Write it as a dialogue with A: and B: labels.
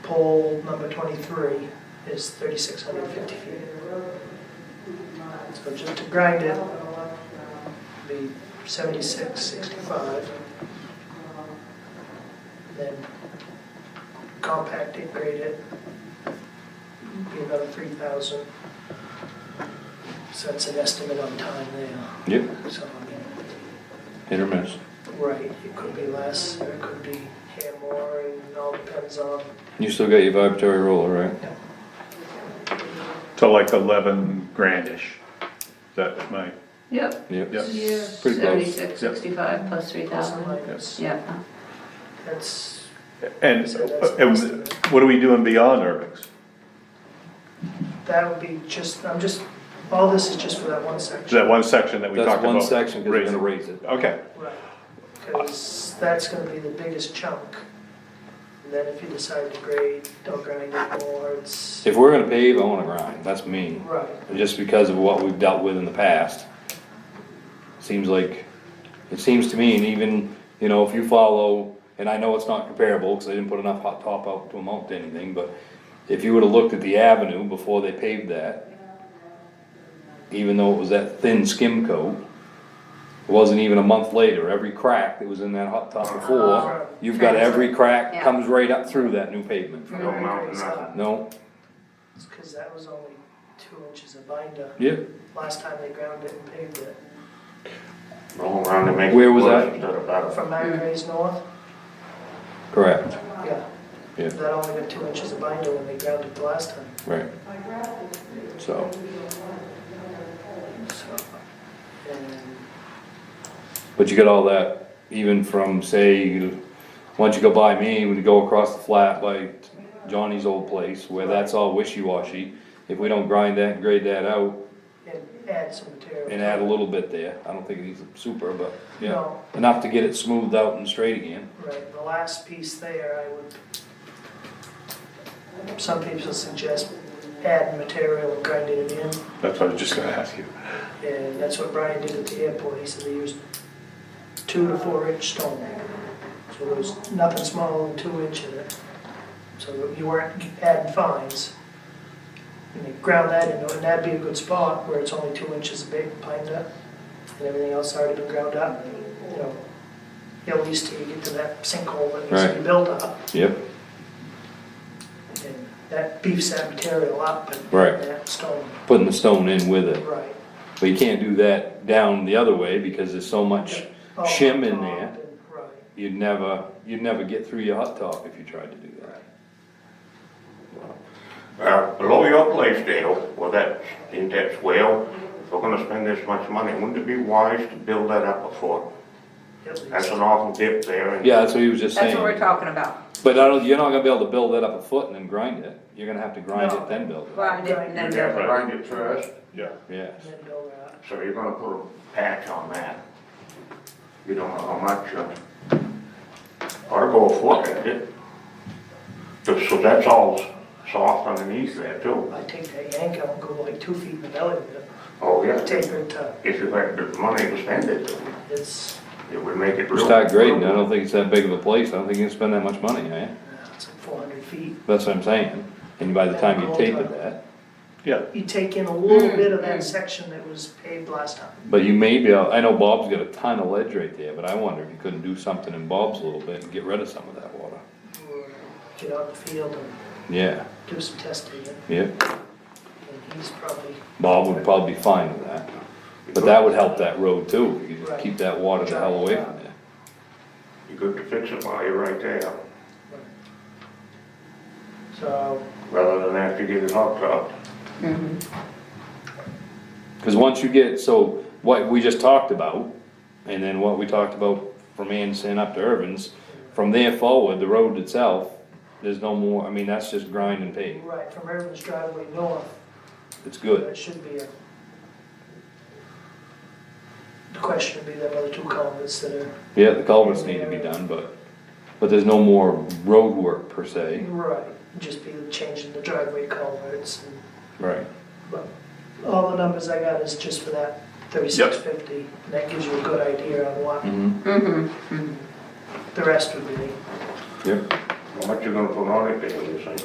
A: pole number 23 is 3,650 feet. So just to grind it, be 7665. Then compact it, grade it, be another 3,000. So that's an estimate on time there.
B: Yep,
A: So, I mean,
B: hit or miss.
A: right, it could be less, or it could be here more, and it all depends on
B: You still got your vibratory roller, right?
C: to like eleven grandish. That my,
D: Yep,
B: Yep,
C: Yep.
B: Pretty close.
D: seventy-six, sixty-five plus three
A: something
D: thousand,
A: like this.
D: yep.
A: That's,
C: and,
A: so that's an
C: and
A: estimate.
C: what are we doing beyond Urbix?
A: That would be just, I'm just, all this is just for that one section.
C: That one section that we
B: that's
C: talked about.
B: one section, because we're gonna
C: raising.
B: raise it.
C: Okay,
A: Right, because that's gonna be the biggest chunk. And then if you decide to grade, don't grind it more, it's,
B: If we're gonna pave, I wanna grind, that's me,
A: right,
B: just because of what we've dealt with in the past. Seems like, it seems to me, and even, you know, if you follow, and I know it's not comparable, cause I didn't put enough hot top out to amount to anything, but if you would've looked at the avenue before they paved that, even though it was that thin skim coat, it wasn't even a month later, every crack that was in that hot top before, you've got every crack
D: Yeah.
B: comes right up through that new pavement.
A: No mountain,
B: No,
A: because that was only two inches of binder
B: yeah,
A: last time they ground it and paved it.
E: Roll around and make.
B: Where was
E: worse
B: that?
E: instead of better.
A: From Mount Gray's north,
B: correct,
A: yeah,
B: yeah.
A: that only got two inches of binder when they ground it the last time,
B: Right. So,
A: so. And
B: but you get all that, even from, say, you- once you go by me, when you go across the flat by Johnny's old place, where that's all wishy-washy, if we don't grind that and grade that out
A: and add some material.
B: and add a little bit there, I don't think it needs super, but, yeah,
A: No,
B: enough to get it smoothed out and straight again.
A: right, the last piece there, I would, some people suggest add material and grind it in.
C: that's what I was just gonna ask you.
A: And that's what Brian did at the airport, he said they used two to four inch stone. So there was nothing smaller than two inch in it. So you weren't adding fines. And they ground that into it, and that'd be a good spot where it's only two inches big, pined up, and everything else already been ground up, you know. At least till you get to that sinkhole that needs to be
B: Right.
A: built up,
B: Yep.
A: and that beefs that material up and
B: Right.
A: that stone,
B: Putting the stone in with it,
A: right.
B: but you can't do that down the other way, because there's so much
A: Oh,
B: shim in
A: top
B: there,
A: and- Right.
B: you'd never, you'd never get through your hot top if you tried to do that.
E: Uh, below your place, Dale, well, that, in that swale, if we're gonna spend this much money, wouldn't it be wise to build that up a foot?
A: At least.
E: That's an awful dip there. and-
B: Yeah, that's what he was just saying.
D: That's what we're talking about,
B: But I don't, you're not gonna be able to build that up a foot and then grind it, you're gonna have to grind
A: No.
B: it then build it,
D: grind it and
E: You
D: then
E: have
D: build
E: to
D: it.
E: grind it first,
C: Yeah.
B: yeah.
A: And then oh, go out.
E: so you're gonna put a patch on that. You don't know how much, uh, or go a foot at it. So so that's all s- soft underneath there too.
A: I take that yank out and go like two feet in the belly with it.
E: Oh, yeah,
A: Taper it to,
E: if you had the money to spend it,
A: it's,
E: it would make it
B: You
E: real.
B: Start grading, I don't think it's that big of a place, I don't think you can spend that much money, eh?
A: uh, it's like four hundred feet.
B: That's what I'm saying, and by the time you tapered that,
C: Yeah,
A: You take in a little
D: Mm,
A: bit of
D: mm.
A: that section that was paved last time.
B: but you may be, able- I know Bob's got a ton of ledge right there, but I wonder if you couldn't do something in Bob's a little bit and get rid of some of that water.
A: Or uh, Get out in the field and
B: Yeah,
A: do some testing, and
B: yeah,
A: and he's probably
B: Bob would probably be fine with that, but that would help that road too, if you could just keep that water the hell away from there.
E: You could fix it while you're right there,
A: So,
E: rather than after you get it hooked up.
B: Cause once you get, so what we just talked about, and then what we talked about from Anson up to Irvin's, from there forward, the road itself, there's no more, I mean, that's just grind and pave,
A: right, from Irvin's driveway north,
B: it's good.
A: that should be a. The question would be them other two culverts that are.
B: Yeah, the culverts need to be done, but, but there's no more road work per se.
A: Right, just be changing the driveway culverts and
B: Right.
A: But all the numbers I got is just for that thirty-six fifty, and that gives you a good idea on what
B: Mm-hmm,
A: the rest would be.
B: yep,
E: How much you gonna put on it, Dale, you think?